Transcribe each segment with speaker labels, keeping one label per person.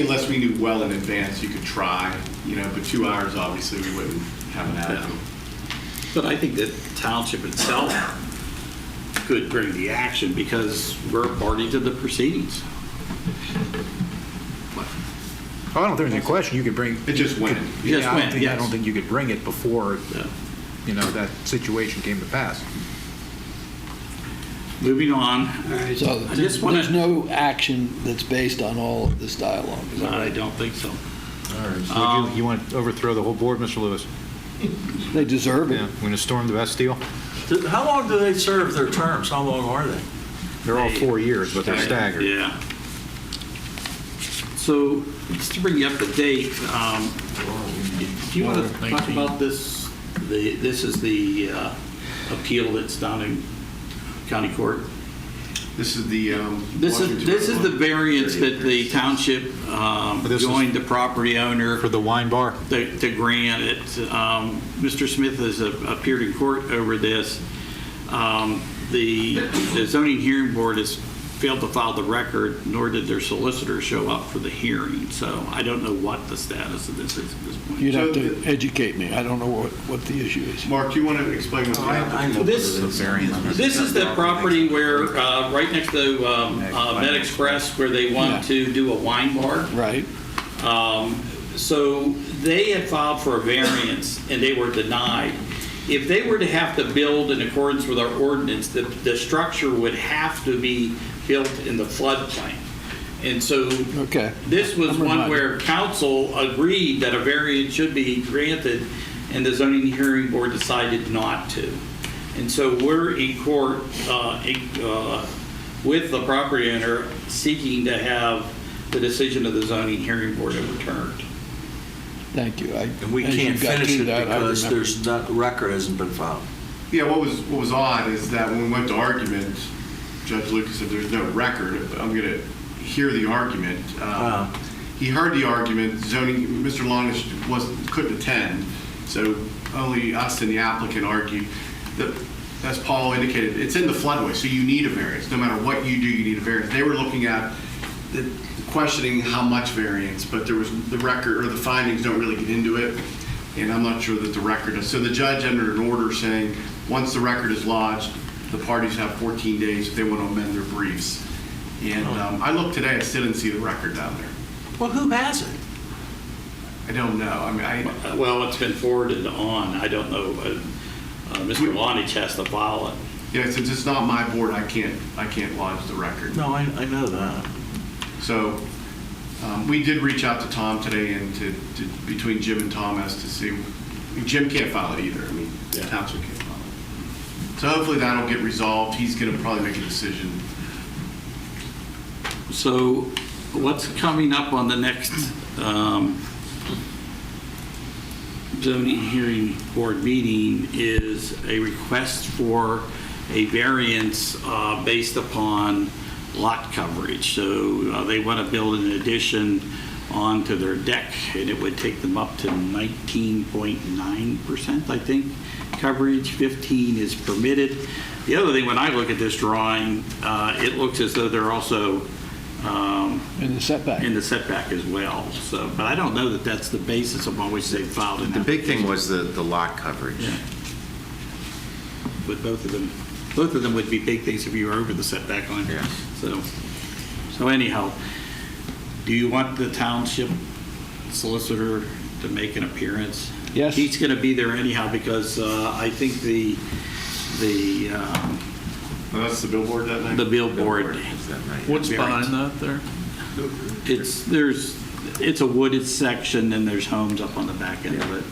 Speaker 1: Unless we knew well in advance, you could try, you know, but two hours, obviously, we wouldn't have an outcome.
Speaker 2: But I think that township itself could bring the action because we're party to the proceedings.
Speaker 3: Oh, I don't think there's any question, you could bring.
Speaker 1: It just went.
Speaker 2: Yes,
Speaker 3: Yeah, I don't
Speaker 2: went,
Speaker 3: think- I
Speaker 2: yes.
Speaker 3: don't think you could bring it before,
Speaker 2: No.
Speaker 3: you know, that situation came to pass.
Speaker 2: Moving on,
Speaker 4: All right, so
Speaker 2: I just wanna-
Speaker 4: there's no action that's based on all of this dialogue, is that
Speaker 2: I
Speaker 4: right?
Speaker 2: don't think so.
Speaker 3: All right,
Speaker 2: so would you-
Speaker 3: you want to overthrow the whole board, Mr. Lewis?
Speaker 4: They deserve it.
Speaker 3: We're going to storm the Bastille?
Speaker 5: Do- How long do they serve their terms? How long are they?
Speaker 3: They're all four years, but they're staggered.
Speaker 2: Yeah. So just to bring you up to date, um, do you want to talk about this? The, this is the uh, appeal that's down in county court.
Speaker 1: This is the, um.
Speaker 2: This is,
Speaker 1: Washington-
Speaker 2: this is the variance that the township um,
Speaker 3: This is-
Speaker 2: joined the property owner
Speaker 3: the wine bar?
Speaker 2: to to grant it. Um, Mr. Smith has a- appeared in court over this. Um, The the zoning hearing board has failed to file the record, nor did their solicitor show up for the hearing, so I don't know what the status of this is at this point.
Speaker 4: You'd have to educate me, I don't know what, what the issue is.
Speaker 1: Mark, do you want to explain what the
Speaker 5: I know.
Speaker 2: This, this is the property where, uh, right next to um, uh, Med Express, where they want to do a wine bar.
Speaker 4: Right,
Speaker 2: Um, So they had filed for a variance and they were denied. If they were to have to build in accordance with our ordinance, the, the structure would have to be built in the floodplain. And so
Speaker 4: okay.
Speaker 2: this was
Speaker 4: I'm
Speaker 2: one
Speaker 4: reminded.
Speaker 2: where council agreed that a variance should be granted and the zoning hearing board decided not to. And so we're in court uh, in- uh, with the property owner seeking to have the decision of the zoning hearing board overturned.
Speaker 4: Thank you.
Speaker 5: And we can't finish it because there's not, the record hasn't been filed.
Speaker 1: Yeah, what was, what was odd is that when we went to argument, Judge Lucas said, there's no record, but I'm going to hear the argument.
Speaker 5: Ah.
Speaker 1: Um, He heard the argument, zoning, Mr. Longish was, couldn't attend, so only us and the applicant argued. The- As Paul indicated, it's in the floodway, so you need a variance, no matter what you do, you need a variance. They were looking at, the- questioning how much variance, but there was, the record, or the findings don't really get into it and I'm not sure that the record is. So the judge entered an order saying, once the record is lodged, the parties have 14 days if they want to amend their briefs. And um, I looked today, I still didn't see the record down there.
Speaker 5: Well, who has it?
Speaker 1: I don't know. I mean, I,
Speaker 2: Uh, Well, it's been forwarded on, I don't know, uh, uh, Mr. Lonnie has to file it.
Speaker 1: yeah, since it's not my board, I can't, I can't lodge the record.
Speaker 5: No, I, I know that.
Speaker 1: So um, we did reach out to Tom today and to, to, between Jim and Tom as to see, Jim can't file it either. I mean, the township can't file it. So hopefully that'll get resolved. He's going to probably make a decision
Speaker 2: So what's coming up on the next um, zoning hearing board meeting is a request for a variance uh, based upon lot coverage. So uh, they want to build an addition onto their deck, and it would take them up to 19.9%, I think, coverage, 15 is permitted. The other thing, when I look at this drawing, uh, it looks as though they're also um,
Speaker 4: In the setback.
Speaker 2: in the setback as well, so, but I don't know that that's the basis upon which they filed an
Speaker 6: The big thing
Speaker 2: application.
Speaker 6: was the, the lot coverage.
Speaker 2: Yeah. But both of them, both of them would be big things if you were over the setback line.
Speaker 6: Yeah.
Speaker 2: So, so anyhow, do you want the township solicitor to make an appearance?
Speaker 4: Yes.
Speaker 2: He's going to be there anyhow because uh, I think the, the, um,
Speaker 1: Oh, that's the billboard that night?
Speaker 2: the billboard,
Speaker 6: Is that right?
Speaker 7: What's
Speaker 2: Variance.
Speaker 7: behind that there?
Speaker 2: it's, there's, it's a wooded section and there's homes up on the back end of it.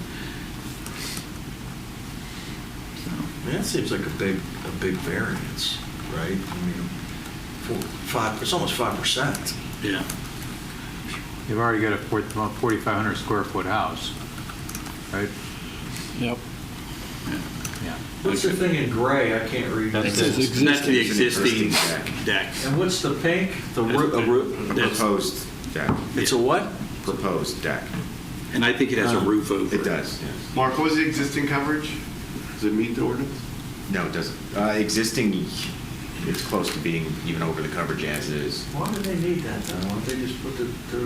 Speaker 5: That seems like a big, a big variance, right? I mean, four, five, it's almost five percent.
Speaker 2: Yeah.
Speaker 8: You've already got a four- about 4,500 square foot house, right?
Speaker 4: Yep.
Speaker 8: Yeah.
Speaker 5: What's the thing in gray? I can't read.
Speaker 8: That's
Speaker 4: It says
Speaker 8: It's
Speaker 2: That's the
Speaker 4: existing.
Speaker 2: existing
Speaker 6: existing
Speaker 2: deck.
Speaker 5: And what's the pink? The roo- a roo-
Speaker 2: That's-
Speaker 6: Proposed deck,
Speaker 5: It's a what?
Speaker 6: proposed deck.
Speaker 2: And I think it has a roof over it.
Speaker 6: It does, yes.
Speaker 1: Mark, what was the existing coverage? Does it meet the ordinance?
Speaker 6: No, it doesn't. Uh, existing, it's close to being even over the coverage as it is.
Speaker 5: Why do they need that? though? Why don't they just put the, the